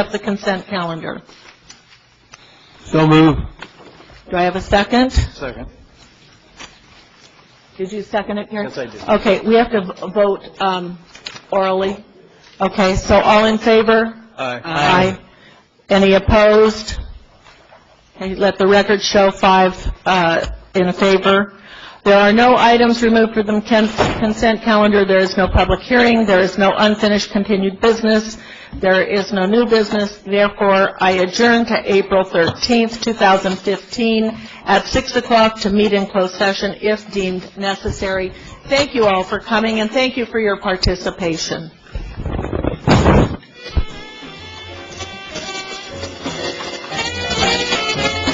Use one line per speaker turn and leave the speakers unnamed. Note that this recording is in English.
accept the consent calendar.
So move.
Do I have a second?
Second.
Did you second it, Gary?
Yes, I did.
Okay, we have to v- vote um, orally. Okay, so all in favor?
Aye.
Any opposed? Okay, Let the record show five uh, in favor. There are no items removed from the con- consent calendar. There is no public hearing. There is no unfinished continued business. There is no new business. Therefore, I adjourn to April 13th, 2015, at 6 o'clock to meet in closed session if deemed necessary. Thank you all for coming, and thank you for your participation.